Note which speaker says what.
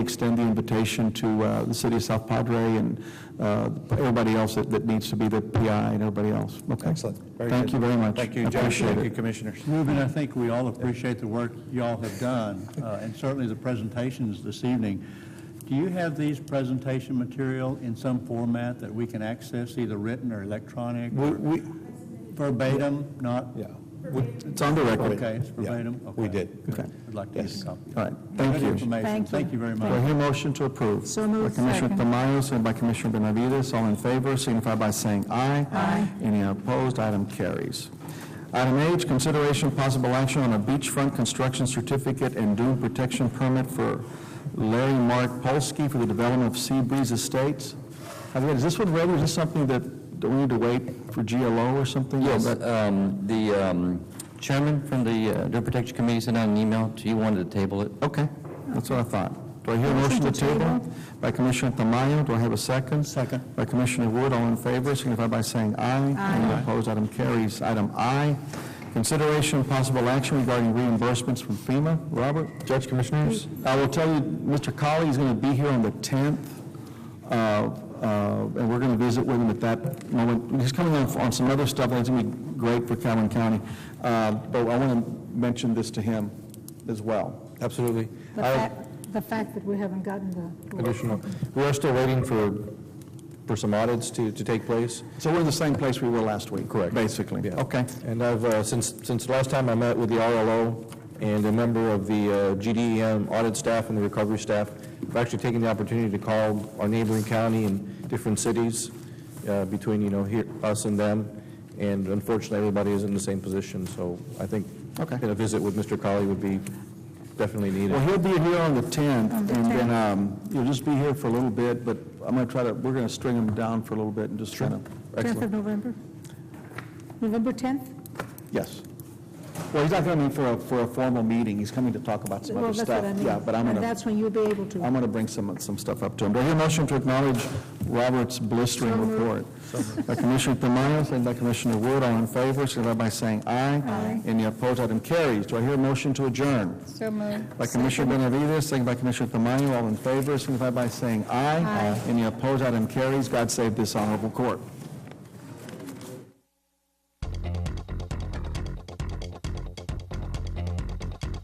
Speaker 1: extend the invitation to uh, the city of South Padre and uh, everybody else that that needs to be the PI and everybody else. Okay?
Speaker 2: Excellent. Very
Speaker 1: Thank
Speaker 2: good.
Speaker 1: you very much.
Speaker 3: Thank you,
Speaker 1: I
Speaker 3: Judge.
Speaker 1: appreciate
Speaker 3: Thank you,
Speaker 1: it.
Speaker 3: Commissioners.
Speaker 4: Reuben, I think we all appreciate the work y'all have done, uh, and certainly the presentations this evening. Do you have these presentation material in some format that we can access, either written or electronic?
Speaker 1: We- we-
Speaker 4: Verbatim, not?
Speaker 2: Yeah,
Speaker 1: It's on the record.
Speaker 4: Okay, it's verbatim?
Speaker 2: Yeah, we
Speaker 4: Okay.
Speaker 2: did.
Speaker 4: Good.
Speaker 1: Okay.
Speaker 4: I'd like to get
Speaker 2: Yes.
Speaker 4: a copy.
Speaker 1: All right, thank
Speaker 4: Good
Speaker 1: you.
Speaker 4: information.
Speaker 5: Thank you.
Speaker 4: Thank you very
Speaker 1: Do I
Speaker 4: much.
Speaker 1: hear motion to approve?
Speaker 5: So moved.
Speaker 1: By Commissioner
Speaker 5: Second.
Speaker 1: Tamayo, and by Commissioner Benavides, all in favor, signify by saying aye. Aye. Any opposed, item carries. Item H, consideration possible action on a beachfront construction certificate and dune protection permit for Larry Mark Polsky for the development of Sea Breeze Estates. Javier, Is this one ready, is this something that that we need to wait for GLO or something?
Speaker 6: Yes,
Speaker 1: That-
Speaker 6: um, the um, chairman from the uh, Deer Protection Committee sent out an email to you, wanted to table it.
Speaker 1: Okay, that's what I thought. Do I hear a motion to table? By Commissioner Tamayo, do I have a second?
Speaker 4: Second.
Speaker 1: By Commissioner Wood, all in favor, signify by saying aye. Any opposed, item carries. Item I, consideration and possible action regarding reimbursements from FEMA. Robert? Judge Commissioners? I will tell you, Mr. Colley is going to be here on the 10th, uh, uh, and we're going to visit with him at that moment. He's coming on on some other stuff that's going to be great for Calhoun County, Uh, but I want to mention this to him as well.
Speaker 2: absolutely.
Speaker 5: The
Speaker 2: I-
Speaker 5: fact, the fact that we haven't gotten the.
Speaker 2: Additional, we are still waiting for, for some audits to, to take place.
Speaker 1: So we're in the same place we were last week?
Speaker 2: Correct.
Speaker 1: Basically?
Speaker 2: Yeah.
Speaker 1: Okay.
Speaker 2: And I've, uh, since, since last time I met with the RLO and a member of the uh, GDEM audit staff and the recovery staff, I've actually taken the opportunity to call our neighboring county and different cities uh, between, you know, here, us and them, and unfortunately, everybody is in the same position, so I think
Speaker 1: Okay.
Speaker 2: that a visit with Mr. Colley would be definitely needed.
Speaker 1: Well, he'll be here on the 10th,
Speaker 5: On
Speaker 1: and
Speaker 5: the
Speaker 1: then um, he'll just be here for a little bit, but I'm going to try to, we're going to string him down for a little bit and just kind of,
Speaker 5: 10th of November? November 10th?
Speaker 1: yes. Well, he's not coming for a, for a formal meeting, he's coming to talk about some
Speaker 5: Well,
Speaker 1: other
Speaker 5: that's
Speaker 1: stuff.
Speaker 5: what I mean.
Speaker 1: Yeah, but I'm
Speaker 5: And
Speaker 1: going to,
Speaker 5: that's when you'll be able to.
Speaker 1: I'm going to bring some, some stuff up to him. Do I hear a motion to acknowledge Robert's blistering report? By Commissioner Tamayo, second by Commissioner Wood, all in favor, signify by saying aye. Aye. Any opposed, item carries. Do I hear a motion to adjourn?
Speaker 5: So moved.
Speaker 1: By Commissioner Benavides, second by Commissioner Tamayo, all in favor, signify by saying aye. Aye. Any opposed, item carries. God save this honorable court.